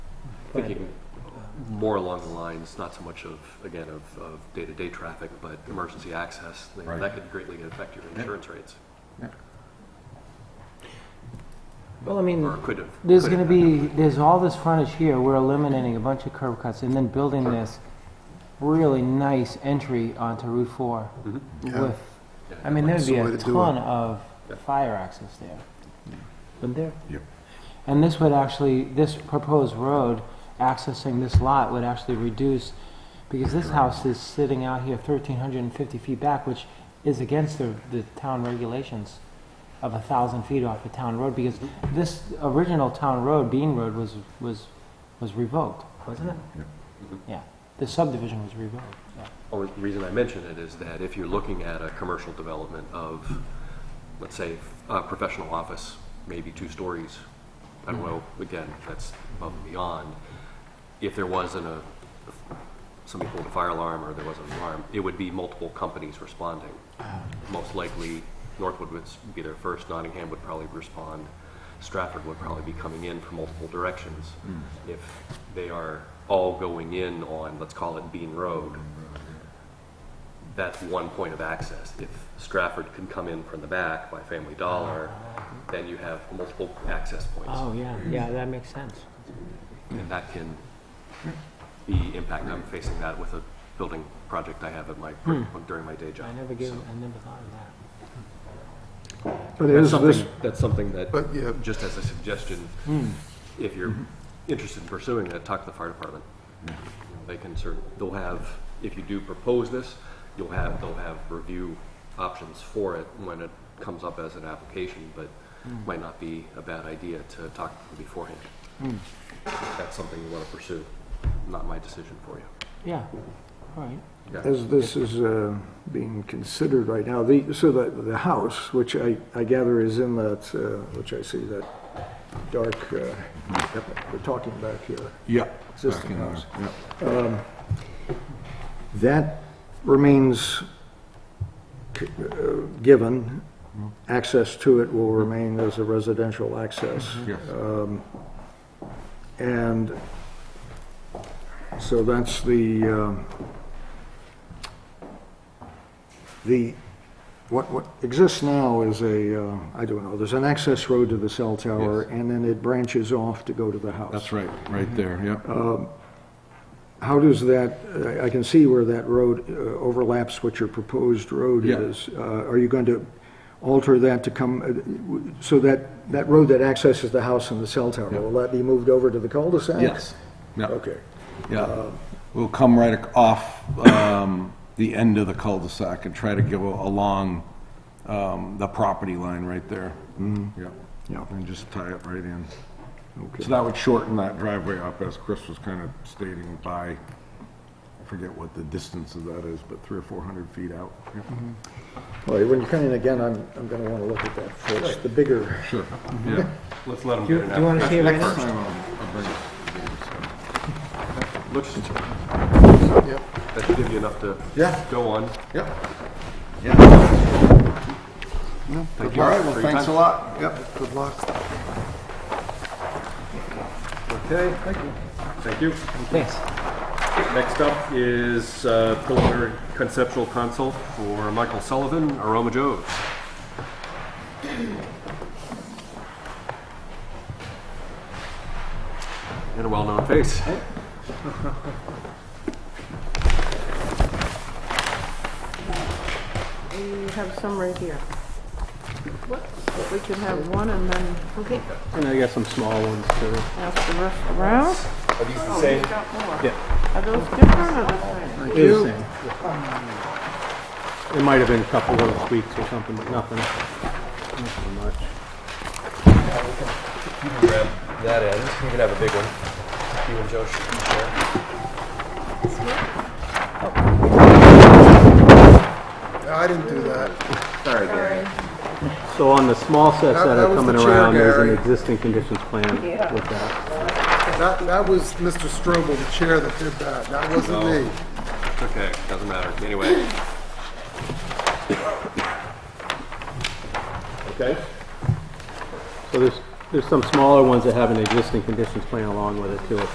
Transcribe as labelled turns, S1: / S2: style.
S1: thinking more along the lines, not so much of, again, of, of day-to-day traffic, but emergency access. you know,
S2: Right.
S1: That could greatly affect your insurance rates.
S3: Well, I mean,
S1: Or could have.
S3: There's
S1: could
S3: gonna
S1: have.
S3: be, there's all this frontage here, we're eliminating a bunch of curb cuts and then building this really nice entry onto Route Four
S1: Mhm.
S3: with,
S1: Yeah.
S3: I mean, there'd be
S4: That's the way
S3: a
S4: to do it.
S3: ton of
S1: Yeah.
S3: fire access there. Wouldn't there?
S2: Yep.
S3: And this would actually, this proposed road accessing this lot would actually reduce, because this house is sitting out here thirteen hundred and fifty feet back, which is against the, the town regulations of a thousand feet off a town road, because
S4: Mm-hmm.
S3: this original town road, Bean Road, was, was, was revoked, wasn't it?
S1: Mhm.
S4: Mm-hmm.
S3: Yeah, the subdivision was revoked, yeah.
S1: Only reason I mention it is that if you're looking at a commercial development of, let's say, a professional office, maybe two stories, I
S3: Mm-hmm.
S1: don't know, again, that's above and beyond, if there wasn't a, if somebody pulled a fire alarm or there was an alarm, it would be multiple companies responding. Most likely, Northwood would be there first, Nottingham would probably respond, Stratford would probably be coming in from multiple directions. If they are all going in on, let's call it Bean Road, that's one point of access. If Stratford can come in from the back by Family Dollar, then you have multiple access points.
S3: Oh, yeah, yeah, that makes sense.
S1: And that can be impact, I'm facing that with a building project I have at my, during my day job.
S3: I never gave,
S1: So
S3: I never thought of that.
S4: But
S1: That's
S4: is this,
S1: something, that's something that,
S4: but yeah,
S1: just as a suggestion,
S3: Hmm.
S1: if you're interested in pursuing that, talk to the fire department.
S3: Hmm.
S1: You know, They can certainly, they'll have, if you do propose this, you'll have, they'll have review options for it when it comes up as an application, but
S3: Hmm.
S1: might not be a bad idea to talk to them beforehand.
S3: Hmm.
S1: If that's something you want to pursue, not my decision for you.
S3: Yeah, all right.
S1: Yeah.
S4: as this is uh, being considered right now, the, so the, the house, which I, I gather is in that, uh, which I see that dark, uh, we're talking back here,
S2: Yeah. back
S4: Existing
S2: in
S4: house.
S2: there, yeah.
S4: that remains uh, given, access to it will remain as a residential access.
S2: Yes.
S4: And so that's the, um, the, what, what exists now is a, uh, I don't know, there's an access road to the cell tower, and then it branches off to go to the house.
S2: That's right,
S4: mm-hmm.
S2: right there,
S4: Uh,
S2: yeah.
S4: How does that, uh, I- I can see where that road uh, overlaps what your proposed road
S2: Yeah.
S4: is. Uh, Are you going to alter that to come, uh, w- so that, that road that accesses the house and the cell tower,
S2: Yeah.
S4: will that be moved over to the cul-de-sac?
S2: Yes. Yeah,
S4: Okay. Uh,
S2: yeah. We'll come right ac- off um, the end of the cul-de-sac and try to go along um, the property line right there. Yeah.
S4: Mm-hmm. Yeah.
S2: And just tie it right in.
S4: Okay.
S2: So that would shorten that driveway up, as Chris was kind of stating, by, I forget what the distance of that is, but three or 400 feet out. Yeah.
S4: All right, when you come in again, I'm, I'm going to want to look at that first, the bigger.
S2: Sure, yeah.
S1: Let's let them
S3: Do you want to see it right now?
S2: Time I'll- I'll bring it.
S1: Looks, that should give you enough to
S2: Yeah.
S1: go on.
S2: Yep. Yeah.
S1: Thank you
S2: All right, well,
S1: for your
S2: thanks a
S1: time.
S2: lot. Yep, good luck.
S1: Okay, thank you. Thank you.
S3: Thanks.
S1: Next up is uh, preliminary conceptual consult for Michael Sullivan, Aroma Joe's. And a well-known face.
S5: You have some right here. We could have one and then, okay,
S6: And I got some small ones too.
S5: pass the rest around.
S1: Are these the same?
S5: Got more.
S6: Yeah.
S5: Are those different or the
S6: It is the same. It might have been a couple little tweaks or something, but nothing. Not so much.
S1: Grab that end. You can have a big one. You and Joe should share.
S7: I didn't do that.
S6: So on the small sets
S7: That-
S6: that
S7: that
S6: are
S7: was
S6: coming
S7: the chair,
S6: around, there's an
S7: Gary.
S6: existing conditions plan with that.
S7: That, that was Mr. Strobel, the chair, that did that. That wasn't me.
S1: It's okay, doesn't matter. Anyway. Okay.
S6: So there's, there's some smaller ones that have an existing conditions plan along with it too.